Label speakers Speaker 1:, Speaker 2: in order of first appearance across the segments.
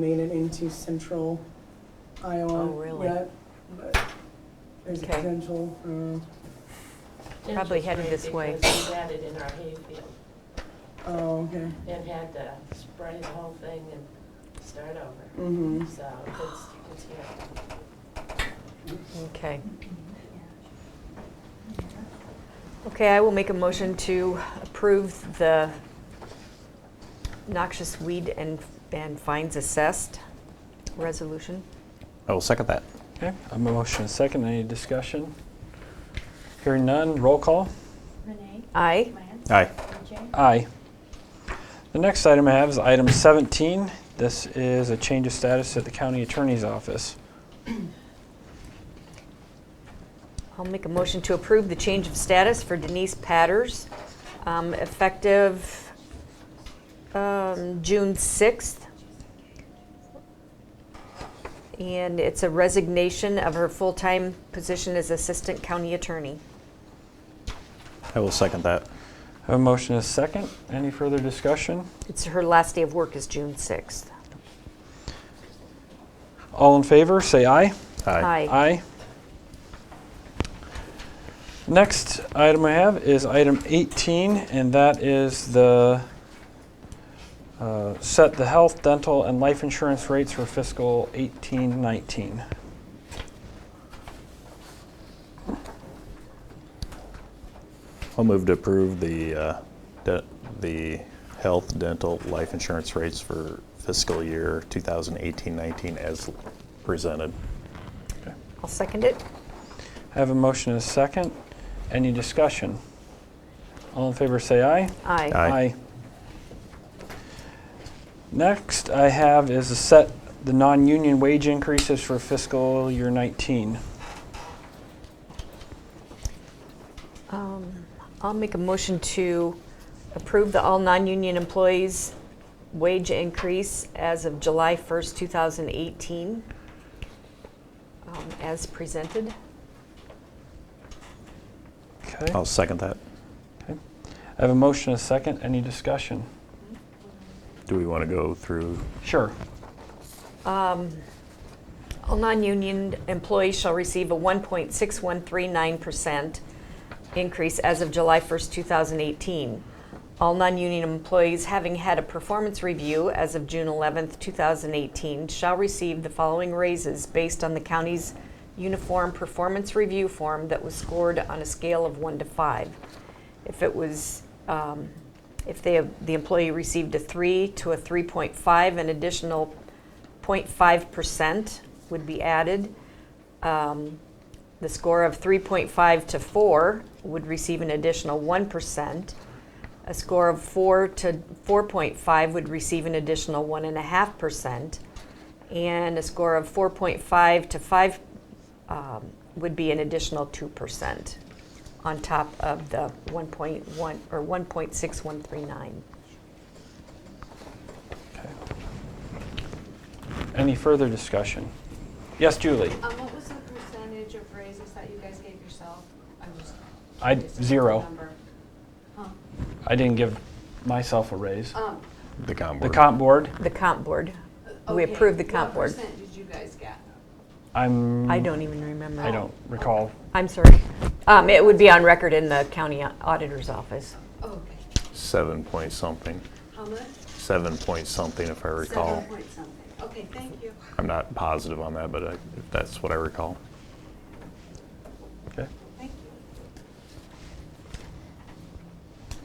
Speaker 1: made it into central Iowa.
Speaker 2: Oh, really?
Speaker 1: yet, but There's a
Speaker 2: Okay. Mm.
Speaker 1: potential, uh,
Speaker 2: Probably headed this way.
Speaker 3: Because we had it in our hayfield
Speaker 1: oh, okay,
Speaker 3: and had to spray the whole thing and start over.
Speaker 1: mm-hmm.
Speaker 3: So it's, it's here.
Speaker 2: Okay. Okay, I will make a motion to approve the noxious weed and, and fines assessed resolution.
Speaker 4: I will second that.
Speaker 5: Okay, I have a motion and a second. Any discussion? Hearing none, roll call.
Speaker 6: Renee?
Speaker 2: Aye.
Speaker 6: Lance?
Speaker 4: Aye.
Speaker 6: AJ?
Speaker 5: Aye. The next item I have is item 17. This is a change of status at the county attorney's office.
Speaker 2: I'll make a motion to approve the change of status for Denise Patters, um, effective um, June 6th. And it's a resignation of her full-time position as Assistant County Attorney.
Speaker 4: I will second that.
Speaker 5: I have a motion and a second. Any further discussion?
Speaker 2: It's her last day of work is June 6th.
Speaker 5: All in favor, say aye.
Speaker 4: Aye.
Speaker 5: Aye. Next item I have is item 18, and that is the, uh, set the health, dental, and life insurance rates for fiscal 18, 19.
Speaker 4: I'll move to approve the, uh, de- the health, dental, life insurance rates for fiscal year 2018-19 as presented.
Speaker 2: I'll second it.
Speaker 5: I have a motion and a second. Any discussion? All in favor, say aye.
Speaker 2: Aye.
Speaker 4: Aye.
Speaker 5: Next I have is to set the non-union wage increases for fiscal year 19.
Speaker 2: Um, I'll make a motion to approve the all non-union employees' wage increase as of July 1st, 2018, um, as presented.
Speaker 5: Okay.
Speaker 4: I'll second that.
Speaker 5: I have a motion and a second. Any discussion?
Speaker 4: Do we want to go through?
Speaker 5: Sure.
Speaker 2: All non-union employees shall receive a 1.6139% increase as of July 1st, 2018. All non-union employees having had a performance review as of June 11th, 2018 shall receive the following raises based on the county's uniform performance review form that was scored on a scale of 1 to 5. If it was, um, if they, the employee received a 3 to a 3.5, an additional 0.5% would be added. Um, The score of 3.5 to 4 would receive an additional 1%. A score of 4 to 4.5 would receive an additional 1.5%. And a score of 4.5 to 5 um, would be an additional 2% on top of the 1.1, or 1.6139.
Speaker 5: Any further discussion? Yes, Julie?
Speaker 7: Um, what was the percentage of raises that you guys gave yourself? I'm just
Speaker 5: I-
Speaker 7: curious about the
Speaker 5: zero.
Speaker 7: number. Huh.
Speaker 5: I didn't give myself a raise.
Speaker 7: Um,
Speaker 4: The comp
Speaker 5: The comp board,
Speaker 2: The comp board, we
Speaker 7: okay,
Speaker 2: approved the comp board.
Speaker 7: What percent did you guys get?
Speaker 5: I'm,
Speaker 2: I don't even remember.
Speaker 5: I don't recall.
Speaker 2: I'm sorry. Um, It would be on record in the county au- auditor's office.
Speaker 7: Oh, okay.
Speaker 4: Seven point something,
Speaker 7: How much?
Speaker 4: seven point something if I recall.
Speaker 7: Seven point something. Okay, thank you.
Speaker 4: I'm not positive on that, but I- that's what I recall.
Speaker 5: Okay.
Speaker 7: Thank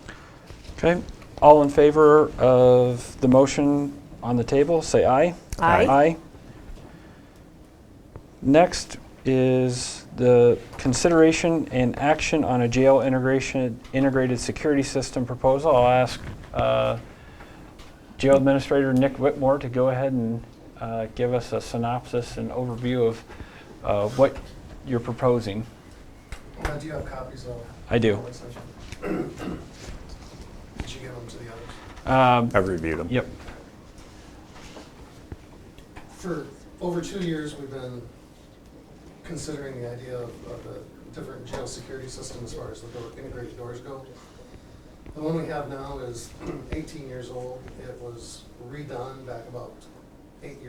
Speaker 7: you.
Speaker 5: Okay, all in favor of the motion on the table, say aye.
Speaker 2: Aye.
Speaker 5: Aye. Next is the consideration and action on a jail integration, integrated security system proposal. I'll ask uh, Jail Administrator Nick Whitmore to go ahead and uh, give us a synopsis and overview of uh, what you're proposing.
Speaker 8: Now, do you have copies of?
Speaker 5: I do.
Speaker 8: public session? Did you give them to the others?
Speaker 5: Um,
Speaker 4: I've reviewed them.
Speaker 5: Yep.
Speaker 8: For over two years, we've been considering the idea of of the different jail security system as far as the door- integrated doors go. The one we have now is 18 years old. It was redone back about eight years